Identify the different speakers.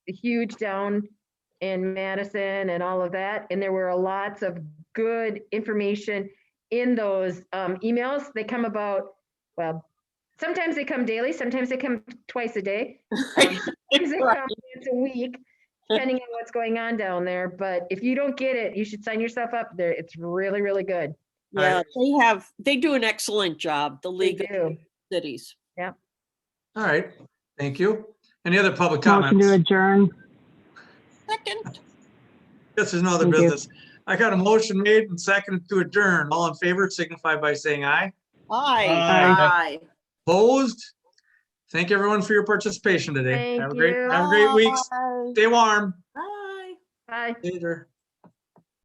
Speaker 1: huge down in Madison and all of that. And there were lots of good information in those um, emails. They come about, well, sometimes they come daily, sometimes they come twice a day. Um, Sometimes they
Speaker 2: Right.
Speaker 1: come once a week, depending on what's going on down there. But if you don't get it, you should sign yourself up there. It's really, really good.
Speaker 2: Yeah, they have, they do an excellent job, the
Speaker 1: They
Speaker 2: League of
Speaker 1: do.
Speaker 2: Cities.
Speaker 3: All right, thank you. Any other public
Speaker 4: Motion to
Speaker 3: comments?
Speaker 4: adjourn.
Speaker 2: Second,
Speaker 3: This is no other
Speaker 4: Thank you.
Speaker 3: business. I got a motion made and seconded to adjourn. All in favor signify by saying aye.
Speaker 5: Aye.
Speaker 2: aye.
Speaker 3: Opposed? Thank everyone for your participation today.
Speaker 1: Thank
Speaker 3: Have a great,
Speaker 1: you.
Speaker 3: have a great week. Stay warm.
Speaker 5: Bye.
Speaker 1: Bye.
Speaker 3: Later.